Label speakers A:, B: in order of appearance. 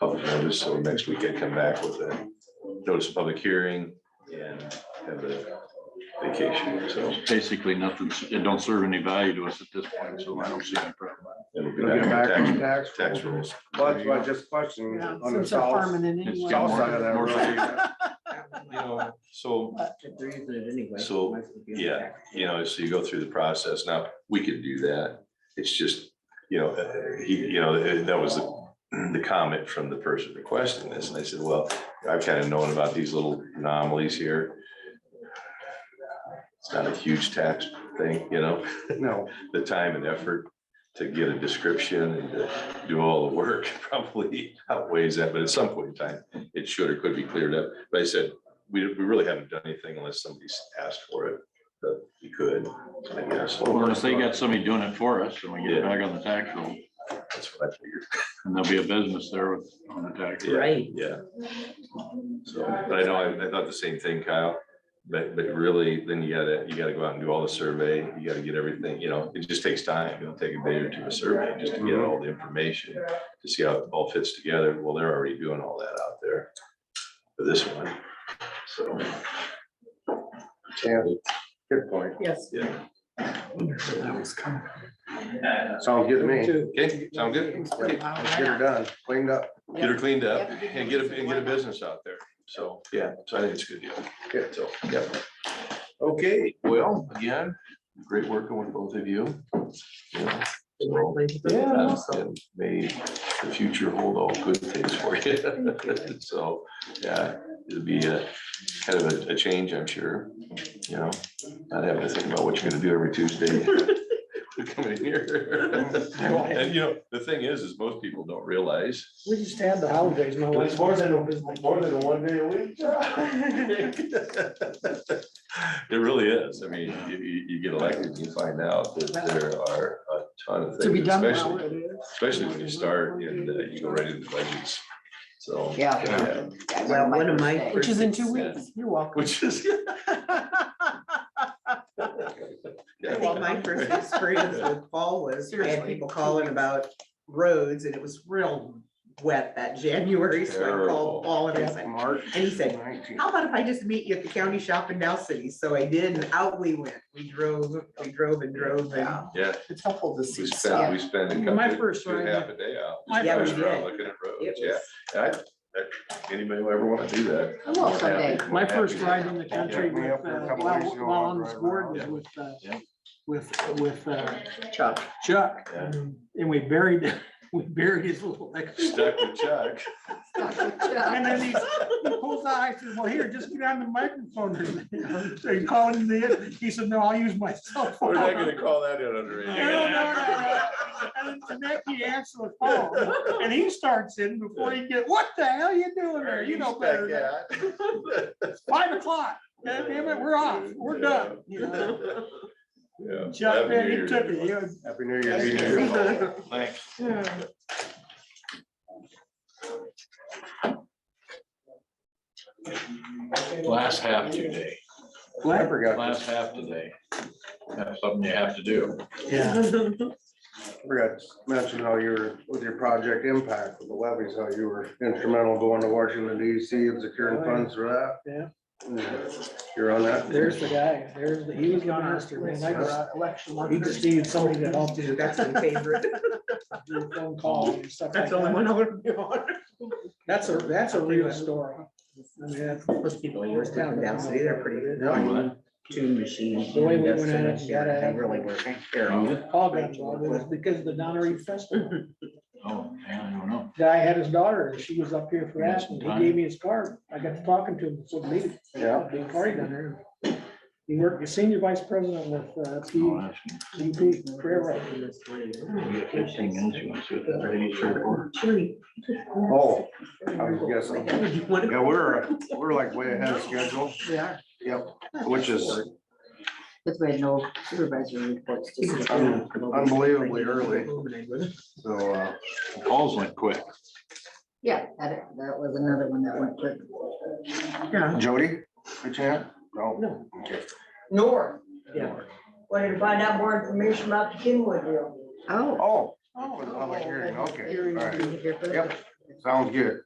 A: public notice, so next week I come back with a notice of public hearing and have a vacation, so
B: Basically, nothing's, it don't serve any value to us at this point, so I don't see any problem.
A: it'll be
C: It'll get
A: back
C: back
A: on
C: to
A: tax,
C: tax.
A: tax rules.
C: Well, that's why I just questioned
D: Yeah,
C: on the
D: Since they're
C: south,
D: farming it
B: It's
D: anyway.
B: got
C: south
B: more-
C: side of that
B: more-
C: road.
A: You know, so,
E: They're using it anyway.
A: So,
E: Might as well be on
A: yeah,
E: tax.
A: you know, so you go through the process. Now, we could do that. It's just, you know, uh, he, you know, uh, that was the the comment from the person requesting this. And I said, well, I've kind of known about these little anomalies here. It's not a huge tax thing, you know,
C: No,
A: the time and effort to get a description and to do all the work probably outweighs that, but at some point in time, it should or could be cleared up. But I said, we, we really haven't done anything unless somebody's asked for it, but we could, I guess.
B: Well, if they got somebody doing it for us and we get it back on the tax roll,
A: That's what I figured.
B: and there'll be a business there with, on the tax. roll.
A: Yeah,
E: Right.
A: Yeah. So, but I know, I, I thought the same thing, Kyle, but, but really, then you gotta, you gotta go out and do all the survey, you gotta get everything, you know, it just takes time, it'll take a day or two of survey, just to get all the information, to see how it all fits together, well, they're already doing all that out there for this one, so,
C: yeah, good point.
D: Yes.
A: yeah,
C: Sounds good to me.
A: okay, sound good? Okay,
C: Let's get her done, cleaned up.
A: Get her cleaned up and get a, and get a business out there, so, yeah, so I think it's a good deal.
C: Yeah.
A: So, yeah. Okay, well, again, great working with both of you. Yeah, so- Yeah, and may the future hold all good things for you. So, yeah, it'll be a kind of a, a change, I'm sure, you know, not having to think about what you're gonna do every Tuesday. Coming here. And you know, the thing is, is most people don't realize.
E: We just had the holidays, my wife.
C: more than one day a week.
A: It really is. I mean, you, you, you get elected, you find out that there are a ton of
D: To be
A: things,
D: done well,
A: especially,
D: it is.
A: especially when you start and uh, you go right into budgets. So.
F: Yeah.
A: yeah,
E: Well, one of my
D: Which is in two
A: Yes.
D: weeks. You're welcome.
A: Which is.
E: I think my first experience with fall was, I had
D: Seriously.
E: people calling about roads and it was real wet that January, so I
A: Terrible.
E: called Paul and I was like,
C: March.
E: And he said, how about if I just meet you at the county shop in Dow City? So I did and out we went. We drove, we drove and drove and
D: Yeah,
A: Yeah,
D: It's helpful to see
A: we
D: stuff.
A: spent, we spent. a
D: My
A: couple-
D: first
A: two and a
D: ride.
A: Half a day out.
D: My
A: just
E: first-
A: driving around Looking at
E: it
A: roads, yeah.
E: was.
A: And I, that- anybody who ever wanna do that.
F: I will someday.
A: happy-
D: My
A: happy
D: first
A: to-
D: ride in the country
C: Yeah, we
D: with,
C: have
D: uh,
C: for a couple
D: while,
C: weeks, you know,
D: while
C: I'll
D: on this
C: drive
D: board was
A: around.
D: with, uh,
A: Yeah.
D: with, with uh,
F: Chuck.
D: Chuck.
A: Yeah.
D: And we buried, we buried his little.
A: Stuck with Chuck.
D: And then he he pulls out, I said, well, here, just get on the microphone and- and call it in. He said, no, I'll use my cell
A: We're
D: phone.
A: not gonna call that in under.
D: No, no, no, no. And then Becky answers the phone and he starts in before he get, what the hell you doing there? You know better. than- It's Five o'clock. God damn it, we're off. We're done. you know?
A: Yeah.
D: Chuck, man,
A: Happy New
D: he took
A: Year,
D: it. you know.
C: Happy New Year.
A: Happy New Year. Thanks.
B: Last half today,
C: I forgot,
B: last half today. That's something you have to do.
D: Yeah.
C: forgot to mention how you were with your project impact with the levies, how you were instrumental going to Washington DC and securing funds for
G: Oh, Yeah.
C: that. You're on that.
G: There's the guy, there's the, he was the master, man, I just, he just needed somebody to help
E: Dude,
G: him
E: that's my favorite.
G: do phone calls and stuff like
E: That's the only
G: that.
E: one I want to be on.
G: That's a, that's a real story. I mean, that's
E: Those people in
H: Oh,
E: Youngstown, Dow City, they're pretty.
C: Yeah.
E: Tune machines.
G: The way we went at it,
E: They really were terrible.
G: all got involved, it was because of the Donnery Festival.
B: Oh, man, I don't know.
G: Guy had his daughter, and she was up here for that, and he gave me his card, I got to talking to him, so maybe,
C: Yeah.
G: being party down there. He worked, as senior vice president with, uh,
B: I'll
G: P,
B: ask him.
G: P, railroad.
B: We got fifteen minutes, you want to sit there, ready, sure, or-
C: Oh, I was guessing.
E: One of-
C: Yeah, we're, we're like way ahead of schedule,
E: They are.
C: yep, which is
F: That's why no supervisory reports. to do.
C: un- unbelievably early,
E: Illuminated.
C: so, uh,
B: Calls went quick.
F: Yeah, that, that was another one that went quick.
E: Yeah.
C: Jody, by chance? No. Okay.
H: Nor
E: Yeah.
H: wanted to find out more information about the Kenwood deal.
F: Oh.
C: Oh, it was a public hearing, okay, all right.
F: Here for
C: Yep.
F: that.
C: sounds good.